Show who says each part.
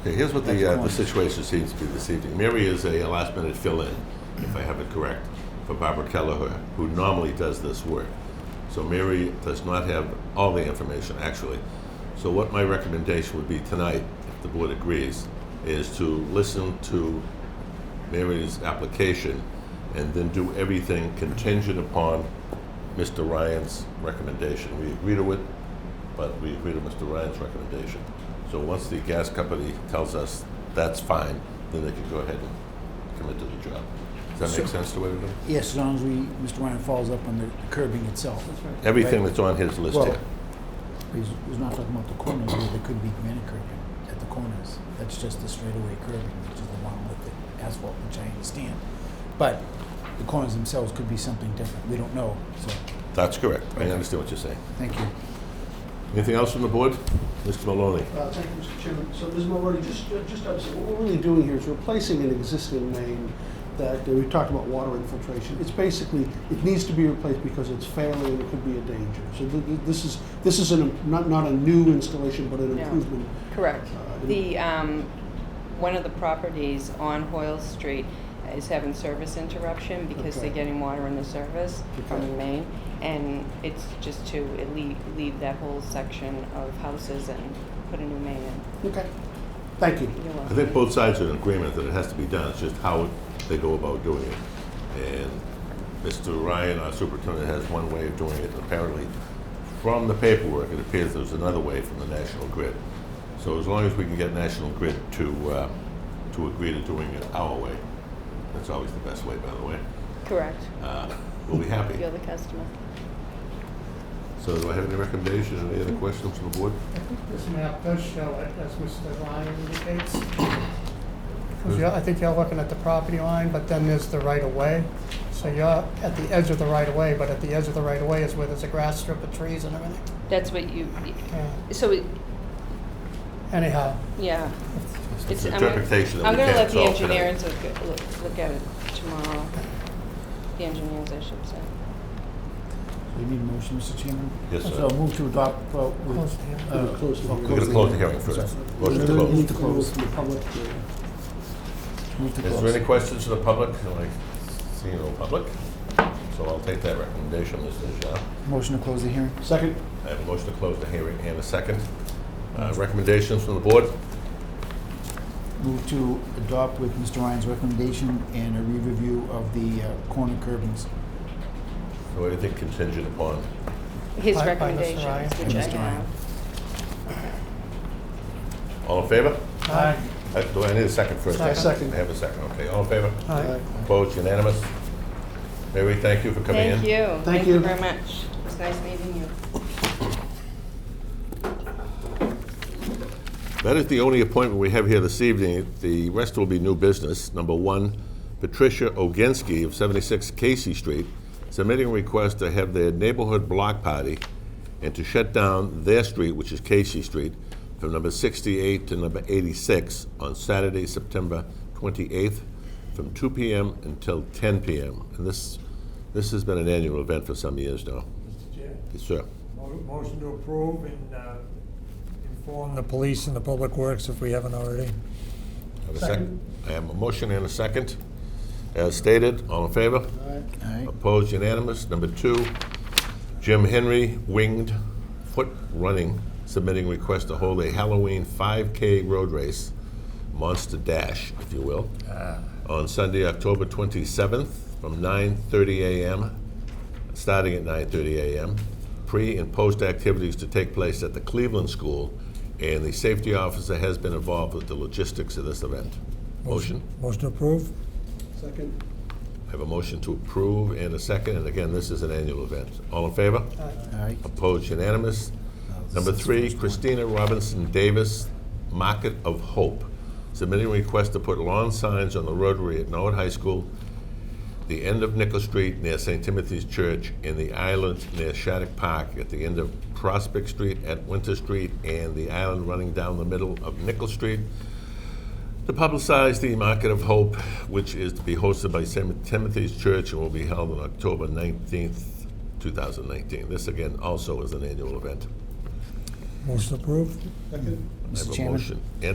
Speaker 1: Okay, here's what
Speaker 2: Next
Speaker 1: the, uh, the
Speaker 2: one.
Speaker 1: situation seems to be this evening. Mary is a last minute fill-in, if I have it correct, for Barbara Kelleher, who normally does this work. So Mary does not have all the information, actually. So what my recommendation would be tonight, if the board agrees, is to listen to Mary's application and then do everything contingent upon Mr. Ryan's recommendation. We agree to it, but we agree to Mr. Ryan's recommendation. So once the gas company tells us that's fine, then they can go ahead and commit to the job. Does that
Speaker 2: Sure.
Speaker 1: make sense to everybody?
Speaker 2: Yes, as long as we, Mr. Ryan follows up on the curbing itself.
Speaker 1: Everything that's on his list
Speaker 2: Well-
Speaker 1: here.
Speaker 2: He's, he's not talking about the corners, where there could be granite curbing at the corners. That's just the straightaway curbing, which is the one with the asphalt, which I understand. But the corners themselves could be something different. We don't know, so,
Speaker 1: That's correct. I understand what you're saying.
Speaker 2: thank you.
Speaker 1: Anything else from the board? Mr. Maloney?
Speaker 3: Uh, Thank you, Mr. Chairman. So, Ms. Mulready, just, uh, just, to understand, what we're really doing here is replacing an existing main that, we talked about water infiltration. It's basically, it needs to be replaced because it's failing and it could be a danger. So th- th- this is, this is an, not, not a new installation, but an
Speaker 4: No.
Speaker 3: improvement.
Speaker 4: Correct.
Speaker 3: Uh,
Speaker 4: The, um, one of the properties on Hoyle Street is having service interruption because they're
Speaker 3: Okay.
Speaker 4: getting water in the service from the
Speaker 3: Okay.
Speaker 4: main. And it's just to leave, leave that whole section of houses and put a new main in.
Speaker 3: Okay, thank you.
Speaker 4: You're
Speaker 1: I
Speaker 4: welcome.
Speaker 1: think both sides are in agreement that it has to be done, it's just how they go about doing it. And Mr. Ryan, our superintendent, has one way of doing it, apparently. From the paperwork, it appears there's another way from the National Grid. So as long as we can get National Grid to, uh, to agree to doing it our way, that's always the best way, by the way,
Speaker 4: Correct.
Speaker 1: uh, we'll be happy.
Speaker 4: You're the customer.
Speaker 1: So do I have any recommendations, or any other questions from the board?
Speaker 5: I think this map does show it, as Mr. Ryan indicates. Because you're- I think you're looking at the property line, but then there's the right-of-way. So you're at the edge of the right-of-way, but at the edge of the right-of-way is where there's a grass strip of trees and everything.
Speaker 4: That's what you,
Speaker 5: Yeah.
Speaker 4: so, it-
Speaker 5: Anyhow,
Speaker 4: yeah.
Speaker 1: It's
Speaker 4: I'm
Speaker 1: an
Speaker 4: gonna-
Speaker 1: interpretation that
Speaker 4: I'm
Speaker 1: we
Speaker 4: gonna
Speaker 1: can't
Speaker 4: let the
Speaker 1: solve tonight.
Speaker 4: engineers look, look- look at it tomorrow. The engineers, I should say.
Speaker 2: Do you need a motion, Mr. Chairman?
Speaker 1: Yes, sir.
Speaker 2: So move to adopt, well, we-
Speaker 5: close to here.
Speaker 2: uh,
Speaker 3: Close the hearing.
Speaker 1: We're gonna close the hearing first. Motion to close.
Speaker 2: Move to close.
Speaker 3: From the public, uh,
Speaker 2: Move to
Speaker 1: Is there any
Speaker 2: close.
Speaker 1: questions to the public? Can I see no public? So I'll take that recommendation, Mr. Dejean.
Speaker 2: Motion to close the hearing.
Speaker 3: Second?
Speaker 1: I have a motion to close the hearing and a second. Uh, Recommendations from the board?
Speaker 2: Move to adopt with Mr. Ryan's recommendation and a re-review of the uh, corner curbings.
Speaker 1: So anything contingent upon?
Speaker 4: His
Speaker 5: By- by Mr.
Speaker 4: recommendations,
Speaker 5: Ryan.
Speaker 4: which I
Speaker 2: Mr. Ryan.
Speaker 4: have.
Speaker 1: All in favor?
Speaker 5: aye.
Speaker 1: Uh, Do I need a second first?
Speaker 5: Second.
Speaker 1: I have a second, okay. All in favor?
Speaker 5: Aye.
Speaker 1: Opposed, unanimous? Mary, thank you for coming in.
Speaker 4: Thank you.
Speaker 3: Thank
Speaker 4: you
Speaker 3: you.
Speaker 4: very much. It's nice meeting you.
Speaker 1: That is the only appointment we have here this evening. The rest will be new business. Number one, Patricia Oginski of 76 Casey Street submitting a request to have their neighborhood block party and to shut down their street, which is Casey Street, from number 68 to number 86 on Saturday, September 28th, from 2 p.m. until 10 p.m. And this, this has been an annual event for some years now.
Speaker 6: Mr. Chair,
Speaker 1: Yes, sir.
Speaker 6: mo- motion to approve and uh, inform the police and the public works if we haven't already.
Speaker 1: Have a second? I have a motion and a second. As stated, all in favor?
Speaker 2: Aye.
Speaker 1: Opposed, unanimous. Number two, Jim Henry, winged foot running, submitting request to hold a Halloween 5K road race, monster dash, if you will, on Sunday, October 27th, from 9:30 a.m., starting at 9:30 a.m. Pre and post activities to take place at the Cleveland School, and the safety officer has been involved with the logistics of this event. Motion?
Speaker 6: Motion to approve?
Speaker 3: Second?
Speaker 1: I have a motion to approve and a second, and again, this is an annual event. All in favor?
Speaker 2: Aye.
Speaker 1: Opposed, unanimous. Number three, Christina Robinson Davis, Market of Hope, submitting a request to put lawn signs on the rotary at Norwood High School, the end of Nickel Street near St. Timothy's Church, and the island near Shattuck Park, at the end of Prospect Street, at Winter Street, and the island running down the middle of Nickel Street, to publicize the Market of Hope, which is to be hosted by St. Timothy's Church and will be held on October 19th, 2019. This, again, also is an annual event.
Speaker 6: Motion to approve?
Speaker 3: Second?
Speaker 1: I have
Speaker 2: Mr.
Speaker 1: a
Speaker 2: Chairman?
Speaker 1: motion. And